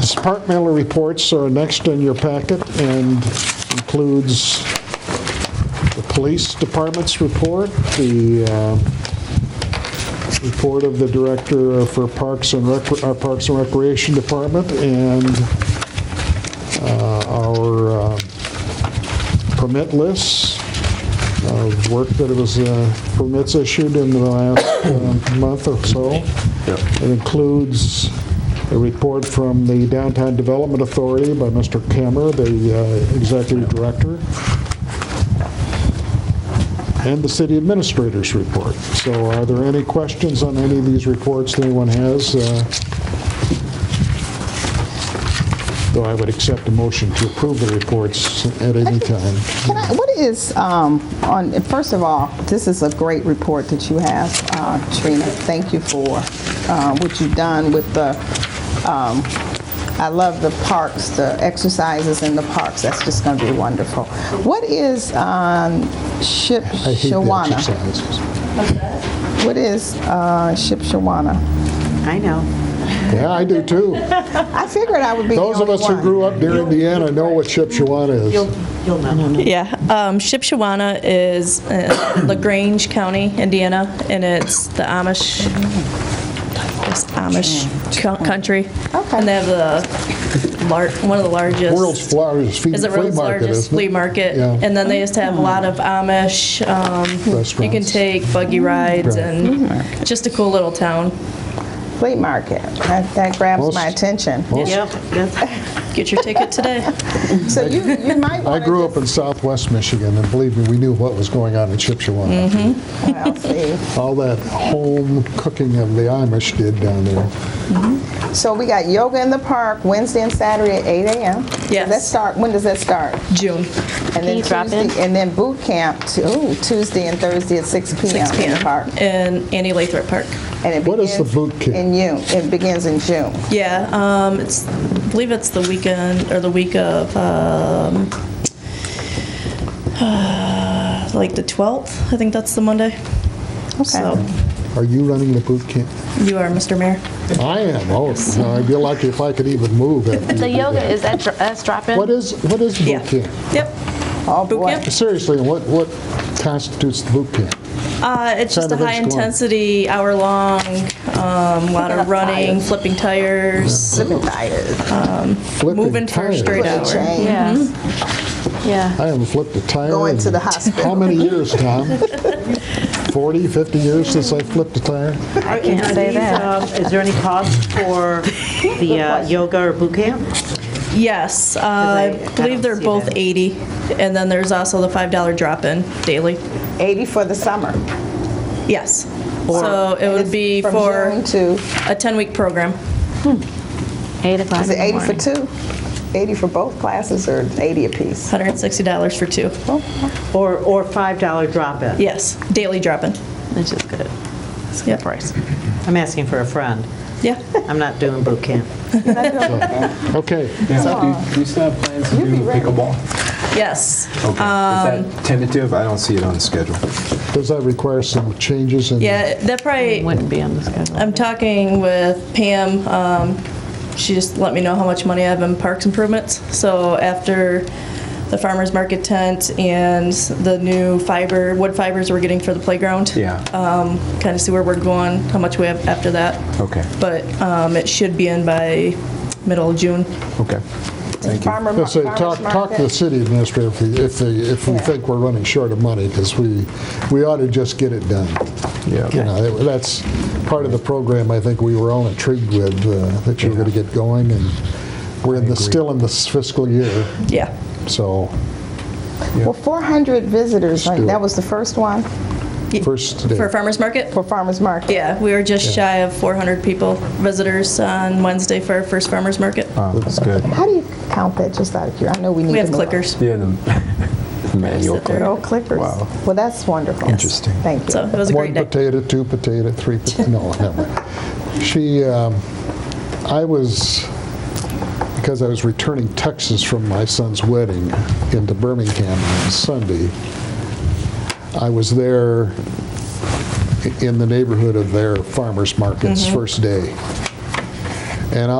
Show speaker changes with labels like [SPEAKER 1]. [SPEAKER 1] Departmental reports are next in your packet and includes the police department's report, the uh, report of the director for Parks and Rec, our Parks and Recreation Department, and uh, our uh, permit lists of work that was, uh, permits issued in the last um, month or so. It includes a report from the Downtown Development Authority by Mr. Kammer, the uh, executive director, and the city administrator's report. So are there any questions on any of these reports that anyone has? Uh, Though I would accept a motion to approve the reports at any time.
[SPEAKER 2] Can I, what is, um, on, first of all, this is a great report that you have, uh, Trina. Thank you for, uh, what you've done with the, um, I love the parks, the exercises in the parks. That's just gonna be wonderful. What is, um, Ship
[SPEAKER 1] I hate the
[SPEAKER 2] Shawana?
[SPEAKER 1] exercises.
[SPEAKER 2] What is, uh, Ship Shawana?
[SPEAKER 3] I know.
[SPEAKER 1] Yeah, I do too.
[SPEAKER 2] I figured I would be the
[SPEAKER 1] Those of
[SPEAKER 2] only
[SPEAKER 1] us who
[SPEAKER 2] one.
[SPEAKER 1] grew up near Indiana know what Shipshewana
[SPEAKER 3] You'll,
[SPEAKER 1] is.
[SPEAKER 3] you'll know.
[SPEAKER 4] Yeah, um, Shipshewana is uh, LaGrange County, Indiana, and it's the Amish, it's Amish co- country.
[SPEAKER 2] Okay.
[SPEAKER 4] And they have the, lar- one of the largest.
[SPEAKER 1] World's largest flea
[SPEAKER 4] Is the
[SPEAKER 1] flea
[SPEAKER 4] world's
[SPEAKER 1] market,
[SPEAKER 4] largest
[SPEAKER 1] isn't
[SPEAKER 4] flea
[SPEAKER 1] it?
[SPEAKER 4] market.
[SPEAKER 1] Yeah.
[SPEAKER 4] And then they used to have a lot of Amish, um, you can
[SPEAKER 1] Restaurants.
[SPEAKER 4] take buggy rides
[SPEAKER 1] Right.
[SPEAKER 4] and just a cool little town.
[SPEAKER 2] Flea market. That that grabs my
[SPEAKER 1] Most-
[SPEAKER 2] attention.
[SPEAKER 1] Most-
[SPEAKER 3] Yep, that's-
[SPEAKER 4] Get your ticket today.
[SPEAKER 2] So you, you
[SPEAKER 1] I
[SPEAKER 2] might wanna
[SPEAKER 1] grew up in southwest Michigan, and believe me, we knew what was going on in Shipshewana.
[SPEAKER 2] just- well, see.
[SPEAKER 4] Mm-hmm.
[SPEAKER 1] All that home cooking of the Amish did down there.
[SPEAKER 2] So we got yoga in the park Wednesday and Saturday at 8 a.m.
[SPEAKER 4] Yes.
[SPEAKER 2] Does that start? When does that start?
[SPEAKER 4] June,
[SPEAKER 2] And then
[SPEAKER 3] you drop
[SPEAKER 2] Tuesday,
[SPEAKER 3] in?
[SPEAKER 2] and then boot camp t- ooh, Tuesday and Thursday at 6 p.m.
[SPEAKER 4] 6
[SPEAKER 2] in the park.
[SPEAKER 4] p.m. in Annie Lathrop Park.
[SPEAKER 2] And it
[SPEAKER 1] What is
[SPEAKER 2] begins
[SPEAKER 1] the boot camp?
[SPEAKER 2] In June. It begins in June.
[SPEAKER 4] Yeah, um, it's, I believe it's the weekend, or the week of, um, uh, like the 12th, I think that's the Monday. So,
[SPEAKER 1] Are you running the boot camp?
[SPEAKER 4] you are, Mr. Mayor.
[SPEAKER 1] I am, oh, no, I'd be lucky if I could even move. after you
[SPEAKER 5] The
[SPEAKER 1] did
[SPEAKER 5] yoga,
[SPEAKER 1] that.
[SPEAKER 5] is that, dr- uh, that's drop-in?
[SPEAKER 1] What is, what is
[SPEAKER 4] Yeah.
[SPEAKER 1] boot camp?
[SPEAKER 4] Yep.
[SPEAKER 2] Oh,
[SPEAKER 4] Boot
[SPEAKER 2] boy.
[SPEAKER 4] camp?
[SPEAKER 1] Seriously, what, what constitutes the boot camp?
[SPEAKER 4] Uh, it's just
[SPEAKER 1] Kind
[SPEAKER 4] a
[SPEAKER 1] of what's going on.
[SPEAKER 4] high-intensity, hour-long, um, lot of running, flipping tires,
[SPEAKER 2] Let me tired.
[SPEAKER 1] Flipping
[SPEAKER 4] moving for a
[SPEAKER 1] tires.
[SPEAKER 4] straight
[SPEAKER 2] Put a
[SPEAKER 4] hour.
[SPEAKER 2] chain.
[SPEAKER 5] Yes. Yeah.
[SPEAKER 1] I haven't flipped a tire.
[SPEAKER 2] Going to
[SPEAKER 1] in
[SPEAKER 2] the hospital.
[SPEAKER 1] How many years, Tom? 40, 50 years since I flipped a tire?
[SPEAKER 3] I can't say that. um, Is there any cost for the uh, yoga or boot camp?
[SPEAKER 4] Yes, uh,
[SPEAKER 3] I- I
[SPEAKER 4] I believe
[SPEAKER 3] don't
[SPEAKER 4] they're
[SPEAKER 3] see
[SPEAKER 4] both
[SPEAKER 3] that.
[SPEAKER 4] 80, and then there's also the $5 drop-in daily.
[SPEAKER 2] 80 for the summer.
[SPEAKER 4] Yes. So it would be
[SPEAKER 2] From
[SPEAKER 4] for
[SPEAKER 2] June to,
[SPEAKER 4] a 10-week program.
[SPEAKER 5] Eight o'clock
[SPEAKER 2] is
[SPEAKER 5] in
[SPEAKER 2] it
[SPEAKER 5] the
[SPEAKER 2] 80 for
[SPEAKER 5] morning.
[SPEAKER 2] two? 80 for both classes or 80 apiece?
[SPEAKER 4] $160 for two.
[SPEAKER 3] Or, or $5 drop-in?
[SPEAKER 4] Yes, daily dropping.
[SPEAKER 5] Which is good. It's a good
[SPEAKER 4] Yep.
[SPEAKER 5] price.
[SPEAKER 3] I'm asking for a friend.
[SPEAKER 4] Yeah.
[SPEAKER 3] I'm not doing boot camp.
[SPEAKER 1] Okay.
[SPEAKER 6] Yeah, do you still have plans to do pickleball?
[SPEAKER 4] Yes.
[SPEAKER 6] Oh. Okay. Is that tentative? I don't see it on the schedule.
[SPEAKER 1] Does that require some changes in?
[SPEAKER 4] Yeah, that
[SPEAKER 5] It
[SPEAKER 4] probably,
[SPEAKER 5] Wouldn't be on the schedule.
[SPEAKER 4] I'm talking with Pam. Um, she just let me know how much money I have in parks improvements. So after the farmer's market tent and the new fiber, wood fibers we're getting for the playground.
[SPEAKER 6] Yeah.
[SPEAKER 4] Um, kind of see where we're going, how much we have after that.
[SPEAKER 6] Okay.
[SPEAKER 4] But, um, it should be in by middle of June.
[SPEAKER 6] Okay. Thank you.
[SPEAKER 2] Farmer mar-
[SPEAKER 1] Let's say,
[SPEAKER 2] farmer's
[SPEAKER 1] talk, talk to the
[SPEAKER 2] market?
[SPEAKER 1] city administrator if we, if they- if we think we're running short of money, because we, we ought to just get it done. You
[SPEAKER 6] Yeah.
[SPEAKER 1] know, that- that's part of the program I think we were all intrigued with, uh, that you were going to get going, and we're in the, still in this fiscal year,
[SPEAKER 4] Yeah.
[SPEAKER 1] so
[SPEAKER 2] Well, 400 visitors, right?
[SPEAKER 1] do it.
[SPEAKER 2] That was the first one
[SPEAKER 1] first day.
[SPEAKER 4] For farmer's market?
[SPEAKER 2] for farmer's market.
[SPEAKER 4] Yeah, we were just shy of 400 people, visitors on Wednesday for our first farmer's market.
[SPEAKER 6] Oh, That's good.
[SPEAKER 2] How do you count that just out of curiosity? I know we need
[SPEAKER 4] We have
[SPEAKER 2] to know.
[SPEAKER 4] clickers.
[SPEAKER 6] Yeah, the the manual.
[SPEAKER 4] Sit there.
[SPEAKER 2] Oh, clickers.
[SPEAKER 6] Wow.
[SPEAKER 2] Well, that's wonderful.
[SPEAKER 6] Interesting.
[SPEAKER 2] Thank you.
[SPEAKER 4] So it was a great
[SPEAKER 1] One
[SPEAKER 4] day.
[SPEAKER 1] potato, two potato, three, pot- no, never mind. She, um, I was, because I was returning Texas from my son's wedding into Birmingham on Sunday, I was there
[SPEAKER 4] Mm-hmm.
[SPEAKER 1] i- in the neighborhood of their farmers markets first day. And